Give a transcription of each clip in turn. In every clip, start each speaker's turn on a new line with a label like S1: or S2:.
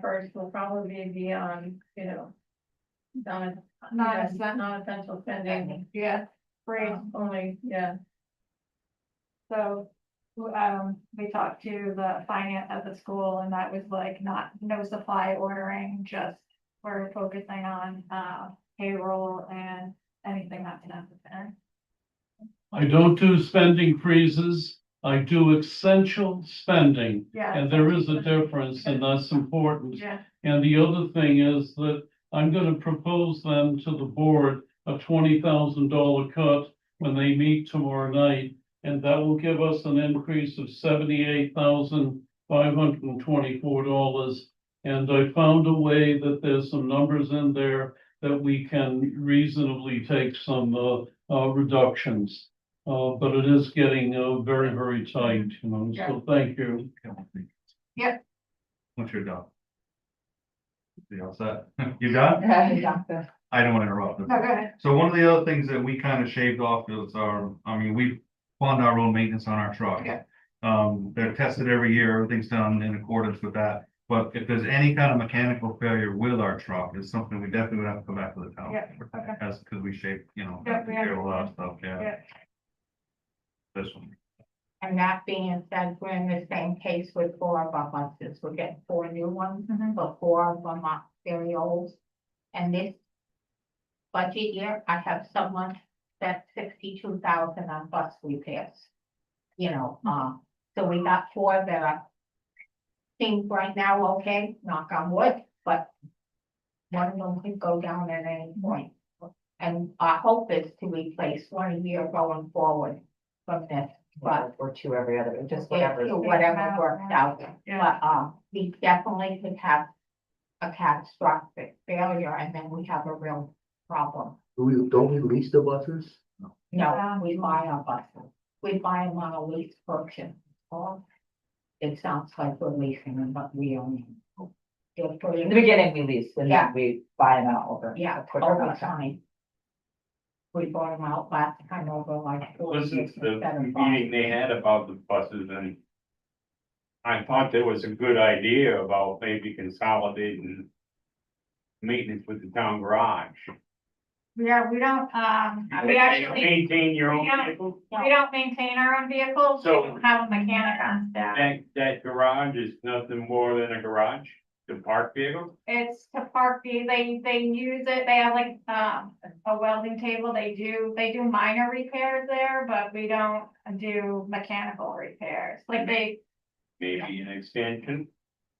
S1: first will probably be on, you know. Not,
S2: Not
S1: not,
S2: as that-
S1: not essential spending,
S2: Yeah, great,
S1: um, only, yeah,
S2: so, um, we talked to the finance at the school and that was like not, no supply ordering, just. We're focusing on, uh, payroll and anything that's necessary.
S3: I don't do spending freezes. I do essential spending.
S2: Yeah.
S3: And there is a difference and that's important.
S2: Yeah,
S3: And the other thing is that I'm gonna propose them to the board a twenty thousand dollar cut when they meet tomorrow night. And that will give us an increase of seventy-eight thousand five hundred and twenty-four dollars. And I found a way that there's some numbers in there that we can reasonably take some, uh, uh, reductions. Uh, but it is getting, uh, very, very tight, you know, so thank you.
S2: Yep.
S4: Once you're done. You all set? You got? it?
S5: Yeah.
S4: I don't want to interrupt.
S2: no, go ahead.
S4: So one of the other things that we kind of shaved off is our, I mean, we fund our own maintenance on our truck.
S2: Yeah.
S4: Um, they're tested every year, everything's done in accordance with that. But if there's any kind of mechanical failure with our truck, it's something we definitely would have to go back to the town.
S2: Yeah, okay.
S4: That's because we shape, you know,
S2: Yeah, we
S4: a lot of stuff, yeah.
S2: Yeah.
S4: This one.
S5: And that being said, we're in the same case with four of our buses. We're getting four new ones,
S2: Mhm.
S5: but four of them are very old. And this budget year, I have someone that's sixty-two thousand on bus repairs. You know, uh, so we got four that are things right now, okay, knock on wood, but one of them could go down at any point. And our hope is to replace one a year going forward from this, but
S6: or two every other, just
S5: it-
S6: whatever.
S5: it- Whatever works out,
S2: Yeah,
S5: but, um, we definitely could have a catastrophic failure and then we have a real problem.
S7: Do we, don't we lease the buses?
S5: No, we buy our buses, we buy them on a lease purchase, or it sounds like we're leasing them, but we own them. They're pretty-
S6: In the beginning, we lease, and
S5: Yeah.
S6: then we buy them out over.
S5: Yeah,
S6: a quicker
S5: over
S6: amount of time.
S5: time. We bought them out last time over like. four
S8: Listen
S5: years
S8: to the
S5: instead of five.
S8: meeting they had about the buses and. I thought there was a good idea about maybe consolidating. Maintenance with the town garage.
S2: yeah, we don't, um, we actually,
S8: Maintain your own
S2: Yeah.
S8: vehicle,
S2: we don't maintain our own vehicles, we
S8: So-
S2: don't have a mechanic on staff.
S8: that, that garage is nothing more than a garage, the park vehicle.
S2: It's to park, the- they, they use it, they have like, um, a welding table, they do, they do minor repairs there, but we don't do mechanical repairs. Like they,
S8: Maybe an extension,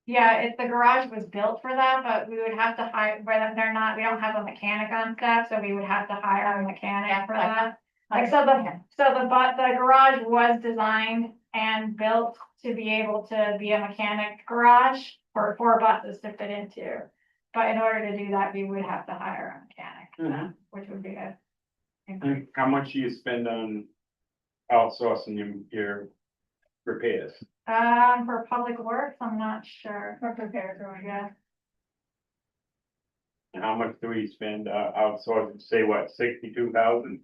S2: yeah, if the garage was built for that, but we would have to hire, where them, they're not, we don't have a mechanic on staff, so we would have to hire a mechanic for that. Like, so the, so the, but the garage was designed and built to be able to be a mechanic garage for four buses to fit into. But in order to do that, we would have to hire a mechanic,
S8: Mhm.
S2: which would be a.
S8: And how much do you spend on outsourcing your, your repairs?
S2: Um, for public works, I'm not sure.
S1: for prepared or yeah.
S2: Yeah,
S8: And how much do we spend uh, outsourcing, say what, sixty-two thousand?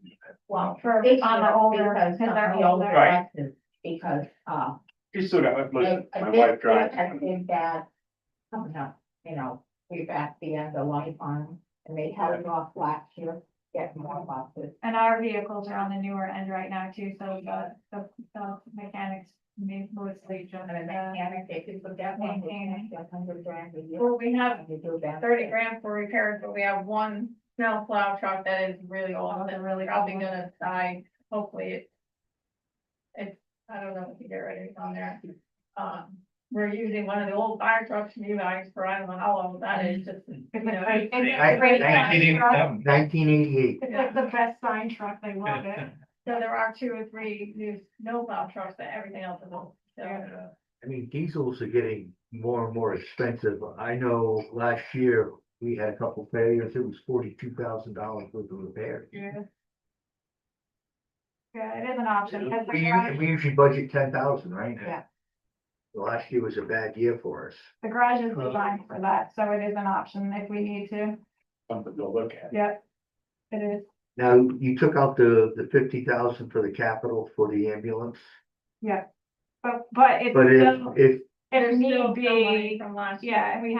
S5: Well,
S2: for,
S5: this
S2: on the
S5: year,
S2: older,
S5: because
S2: because they're
S5: of the older
S2: older.
S8: Right.
S5: buses, Because, uh,
S8: Just sort of, listen,
S5: Um, I- I
S8: my
S5: did-
S8: wife drives.
S5: I did that, coming up, you know, we're at the end of life on, 'em, and they had it off last year, get more buses.
S2: And our vehicles are on the newer end right now too, so we got the, the mechanics ma- mostly just,
S5: And then
S2: uh,
S5: they can't, they could put that one, they can't, hundred grand a year.
S1: Well, we have
S5: and they do that.
S1: thirty grand for repairs, but we have one snow plow truck that is really old and really probably gonna die, hopefully it. It's, I don't know if you get ready on there, um, we're using one of the old fire trucks from you guys for, I don't know how long that is, just, you know.
S2: It's a great sign truck.
S7: Nineteen eighty-eight.
S2: It's like the best sign truck, they love it.
S1: So there are two or three new snow plow trucks, but everything else is old, so.
S7: I mean, diesels are getting more and more expensive. I know last year, we had a couple failures. It was forty-two thousand dollars worth of repair.
S2: Yeah. Yeah, it is an option. because the
S7: We
S2: garage-
S7: usually, we usually budget ten thousand, right?
S5: Yeah.
S7: Last year was a bad year for us.
S2: The garage is designed for that, so it is an option if we need to.
S8: something to look at.
S2: Yep. It is,
S7: Now, you took out the, the fifty thousand for the capital for the ambulance,
S2: yeah. But, but it's
S7: but if,
S2: still,
S7: if
S2: it
S1: There's
S2: need
S1: still some money
S2: be,
S1: From last year.
S2: yeah, and we